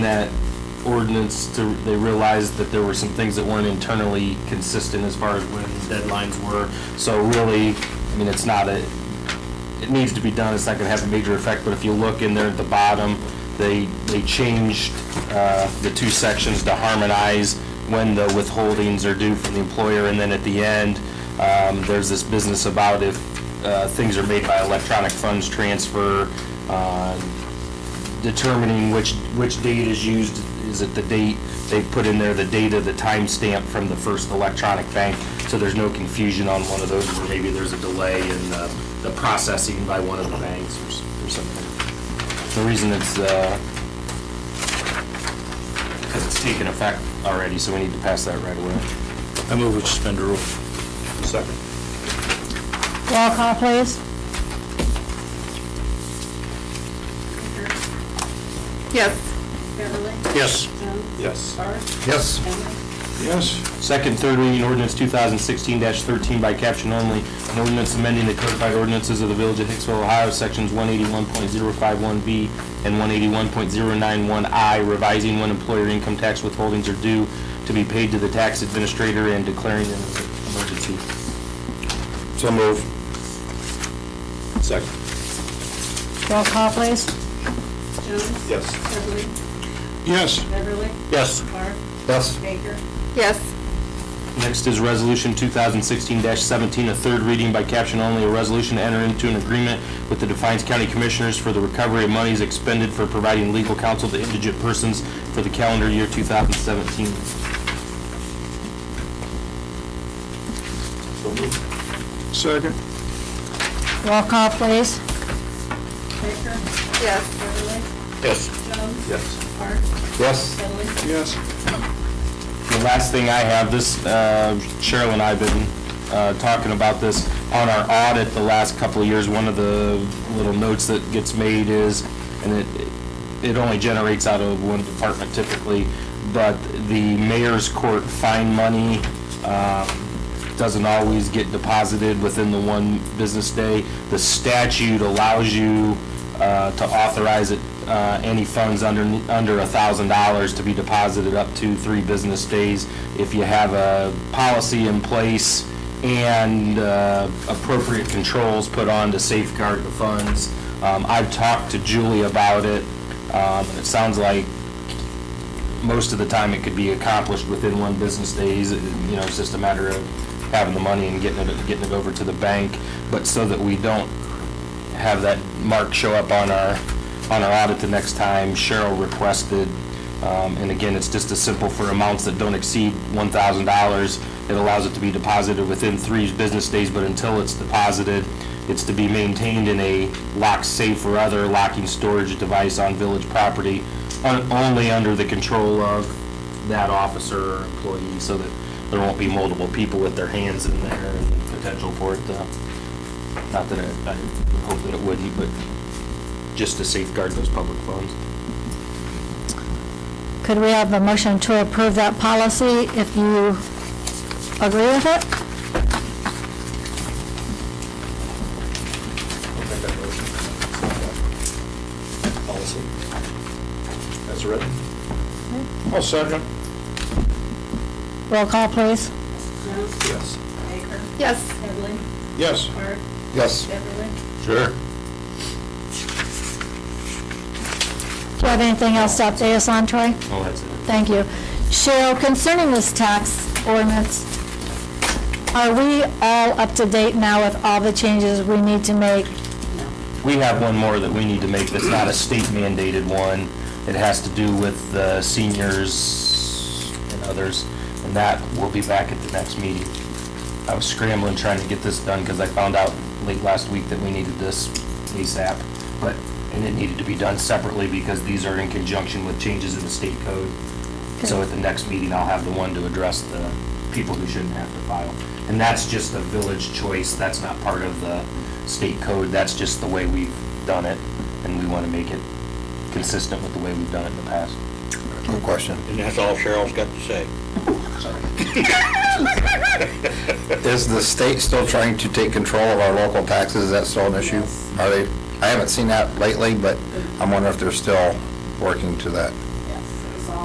that ordinance to, they realized that there were some things that weren't internally consistent as far as when deadlines were. So really, I mean, it's not a, it needs to be done, it's not gonna have a major effect, but if you look in there at the bottom, they, they changed, uh, the two sections to harmonize when the withholdings are due from the employer, and then at the end, um, there's this business about if, uh, things are made by electronic funds transfer, uh, determining which, which date is used, is it the date, they put in there the date of the timestamp from the first electronic bank, so there's no confusion on one of those, or maybe there's a delay in the, the processing by one of the banks or s- or something. The reason it's, uh, because it's taken effect already, so we need to pass that right away. I move we suspend the rule. Second. Roll call, please. Yes. Beverly? Yes. Jones? Yes. Barth? Yes. Emmett? Yes. Second, third reading ordinance 2016-13 by caption only, an ordinance amending the codified ordinances of the Village of Hicksville, Ohio, sections 181.051B and 181.091I, revising when employer income tax withholdings are due to be paid to the tax administrator and declaring an emergency. So move. Second. Roll call, please. Jones? Yes. Heberlin? Yes. Beverly? Yes. Barth? Yes. Baker? Yes. Next is Resolution 2016-17, a third reading by caption only, a resolution to enter into an agreement with the Defiance County Commissioners for the recovery of monies expended for providing legal counsel to indigent persons for the calendar year 2017. Second. Roll call, please. Baker? Yes. Beverly? Yes. Jones? Yes. Barth? Yes. Beverly? Yes. The last thing I have, this, uh, Cheryl and I have been uh, talking about this on our audit the last couple of years. One of the little notes that gets made is, and it, it only generates out of one department typically, but the mayor's court fine money um, doesn't always get deposited within the one business day. The statute allows you uh, to authorize it, uh, any funds under, under $1,000 to be deposited up to three business days. If you have a policy in place and uh, appropriate controls put on to safeguard the funds. Um, I've talked to Julie about it. Um, It sounds like most of the time it could be accomplished within one business days. It- You know, it's just a matter of having the money and getting it, getting it over to the bank. But so that we don't have that mark show up on our, on our audit the next time, Cheryl requested, um, and again, it's just a simple for amounts that don't exceed $1,000. It allows it to be deposited within three business days, but until it's deposited, it's to be maintained in a lock safe or other locking storage device on village property, on- only under the control of that officer or employee, so that there won't be multiple people with their hands in there and the potential for it to not that it- I hope that it wouldn't, but just to safeguard those public funds. Could we have a motion to approve that policy if you agree with it? Policy. That's written. I'll second. Roll call, please. Jones? Yes. Baker? Yes. Beverly? Yes. Barth? Yes. Beverly? Sure. Do you have anything else to update us on, Troy? Oh, that's it. Thank you. Cheryl, concerning this tax ordinance, are we all up to date now with all the changes we need to make? We have one more that we need to make that's not a state mandated one. It has to do with the seniors and others, and that will be back at the next meeting. I was scrambling trying to get this done because I found out late last week that we needed this ASAP, but, and it needed to be done separately because these are in conjunction with changes in the state code. So at the next meeting, I'll have the one to address the people who shouldn't have to file. And that's just a village choice, that's not part of the state code, that's just the way we've done it, and we want to make it consistent with the way we've done it in the past. Good question. And that's all Cheryl's got to say. Is the state still trying to take control of our local taxes? Is that still an issue? Are they, I haven't seen that lately, but I'm wondering if they're still working to that.